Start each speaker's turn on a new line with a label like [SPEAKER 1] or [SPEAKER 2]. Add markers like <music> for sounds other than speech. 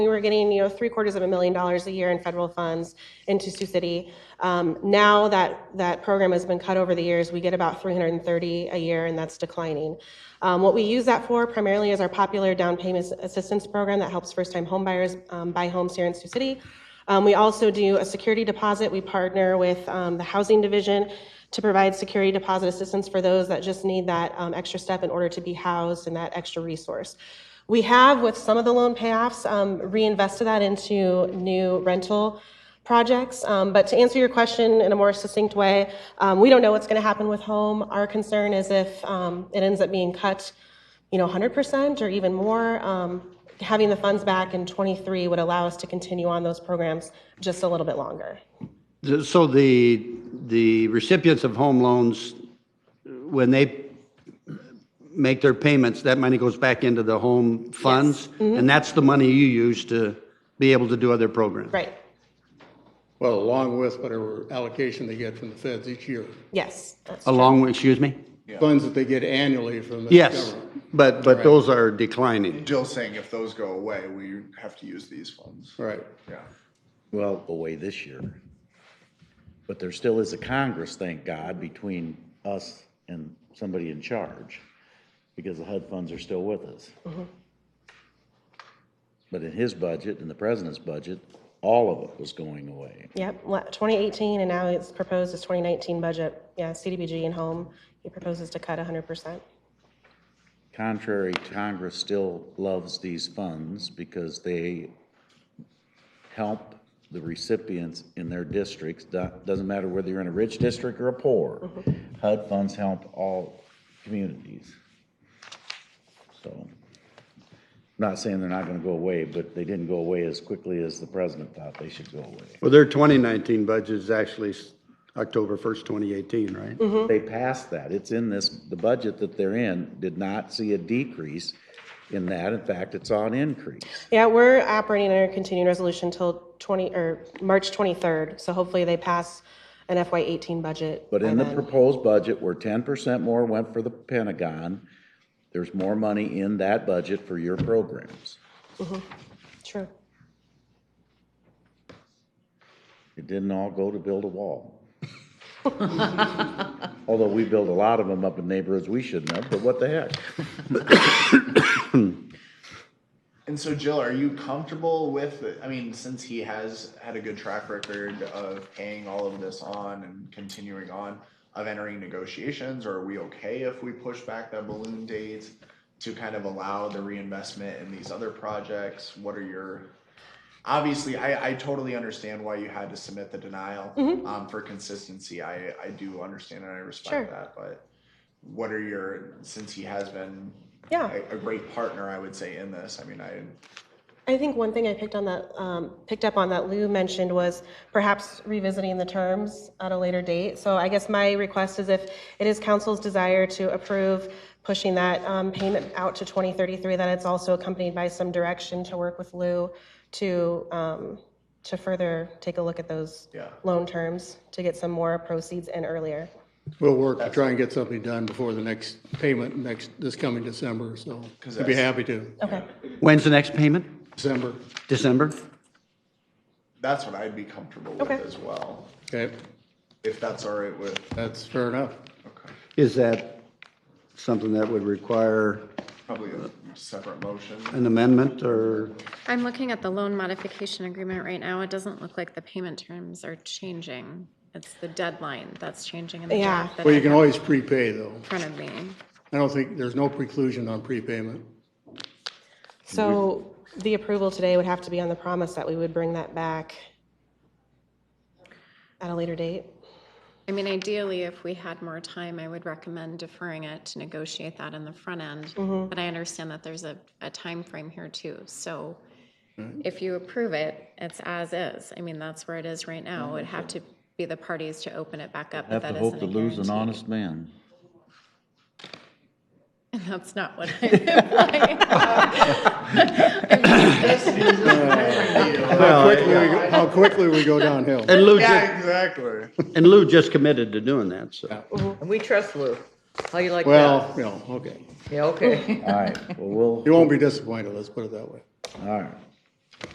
[SPEAKER 1] We were getting, you know, three quarters of a million dollars a year in federal funds into Sioux City. Um, Now that that program has been cut over the years, we get about 330 a year, and that's declining. Um, What we use that for primarily is our popular down payment assistance program that helps first-time homebuyers um, buy homes here in Sioux City. Um, We also do a security deposit. We partner with um, the Housing Division to provide security deposit assistance for those that just need that um, extra step in order to be housed and that extra resource. We have, with some of the loan payoffs, um, reinvested that into new rental projects. Um, But to answer your question in a more succinct way, um, we don't know what's going to happen with home. Our concern is if um, it ends up being cut, you know, 100% or even more. um, Having the funds back in '23 would allow us to continue on those programs just a little bit longer.
[SPEAKER 2] So the, the recipients of home loans, when they make their payments, that money goes back into the home funds? And that's the money you use to be able to do other programs?
[SPEAKER 1] Right,
[SPEAKER 3] Well, along with whatever allocation they get from the feds each year,
[SPEAKER 1] yes. that's true.
[SPEAKER 2] Along, with- excuse me?
[SPEAKER 3] funds that they get annually from the
[SPEAKER 2] Yes,
[SPEAKER 3] government.
[SPEAKER 2] but, but those are declining.
[SPEAKER 4] Jill's saying if those go away, we have to use these funds.
[SPEAKER 3] Right.
[SPEAKER 4] Yeah.
[SPEAKER 5] well, away this year. But there still is a Congress, thank God, between us and somebody in charge, because the HUD funds are still with us. But in his budget, in the president's budget, all of it was going away.
[SPEAKER 1] Yep, la- 2018, and now it's proposed as 2019 budget. Yeah, CDBG and home, he proposes to cut 100%.
[SPEAKER 5] Contrary, Congress still loves these funds because they help the recipients in their districts. Do- Doesn't matter whether you're in a rich district or a poor. HUD funds help all communities. So, I'm not saying they're not gonna go away, but they didn't go away as quickly as the president thought they should go away.
[SPEAKER 2] Well, their 2019 budget is actually s- October 1st, 2018, right?
[SPEAKER 5] They passed that. It's in this, the budget that they're in did not see a decrease in that. In fact, it saw an increase.
[SPEAKER 1] Yeah, we're operating under continuing resolution till 20, or March 23rd, so hopefully they pass an FY18 budget.
[SPEAKER 5] But
[SPEAKER 1] by
[SPEAKER 5] in the
[SPEAKER 1] then.
[SPEAKER 5] proposed budget, where ten percent more went for the Pentagon, there's more money in that budget for your programs.
[SPEAKER 1] True.
[SPEAKER 5] It didn't all go to build a wall. Although we build a lot of them up in neighborhoods we shouldn't have, but what the heck?
[SPEAKER 4] And so Jill, are you comfortable with, I mean, since he has had a good track record of paying all of this on and continuing on of entering negotiations, or are we okay if we push back that balloon date to kind of allow the reinvestment in these other projects? What are your, obviously, I, I totally understand why you had to submit the denial. Um, for consistency, I, I do understand and I
[SPEAKER 1] Sure.
[SPEAKER 4] respect that, but what are your, since he has been
[SPEAKER 1] Yeah.
[SPEAKER 4] a, a great partner, I would say, in this. I mean, I
[SPEAKER 1] I think one thing I picked on that, um, picked up on that Lou mentioned was perhaps revisiting the terms at a later date. So I guess my request is if it is council's desire to approve pushing that um, payment out to 2033, that it's also accompanied by some direction to work with Lou to, um, to further take a look at those
[SPEAKER 4] Yeah.
[SPEAKER 1] loan terms to get some more proceeds in earlier.
[SPEAKER 3] We'll work to try and get something done before the next payment, next, this coming December, so I'd be
[SPEAKER 4] that's-
[SPEAKER 3] happy to.
[SPEAKER 1] Okay,
[SPEAKER 2] When's the next payment?
[SPEAKER 3] December,
[SPEAKER 2] December?
[SPEAKER 4] that's what I'd be comfortable with
[SPEAKER 1] Okay.
[SPEAKER 4] as well,
[SPEAKER 3] okay,
[SPEAKER 4] if that's all right with.
[SPEAKER 3] that's fair enough.
[SPEAKER 4] Okay,
[SPEAKER 2] Is that something that would require
[SPEAKER 4] probably a separate motion.
[SPEAKER 2] an amendment or?
[SPEAKER 6] I'm looking at the loan modification agreement right now. It doesn't look like the payment terms are changing. It's the deadline that's changing in the
[SPEAKER 1] Yeah.
[SPEAKER 6] draft that I
[SPEAKER 3] Well, you
[SPEAKER 6] have
[SPEAKER 3] can
[SPEAKER 6] in
[SPEAKER 3] always prepay, though.
[SPEAKER 6] front of me.
[SPEAKER 3] I don't think, there's no preclusion on prepayment.
[SPEAKER 1] so the approval today would have to be on the promise that we would bring that back at a later date.
[SPEAKER 6] I mean, ideally, if we had more time, I would recommend deferring it to negotiate that in the front end. But I understand that there's a, a frame here too. So
[SPEAKER 5] Mm-hmm.
[SPEAKER 6] if you approve it, it's as is. I mean, that's where it is right now. It would have to be the parties to open it back up, but
[SPEAKER 5] Have
[SPEAKER 6] that
[SPEAKER 5] to
[SPEAKER 6] isn't
[SPEAKER 5] hope
[SPEAKER 6] a
[SPEAKER 5] to lose an
[SPEAKER 6] guarantee.
[SPEAKER 5] honest man.
[SPEAKER 6] <laughs> That's not what
[SPEAKER 5] <laughs>
[SPEAKER 6] I'm implying.
[SPEAKER 3] How quickly, we go- how quickly we go downhill.
[SPEAKER 2] And Lou, ju-
[SPEAKER 4] Yeah, exactly.
[SPEAKER 2] and Lou just committed to doing that, so.
[SPEAKER 7] And we trust Lou. How you like
[SPEAKER 3] Well,
[SPEAKER 7] that?
[SPEAKER 3] you know, okay.
[SPEAKER 7] Yeah, okay.
[SPEAKER 5] All right, well,
[SPEAKER 3] You
[SPEAKER 5] we'll,
[SPEAKER 3] won't be disappointed, let's put it that way.
[SPEAKER 5] all right,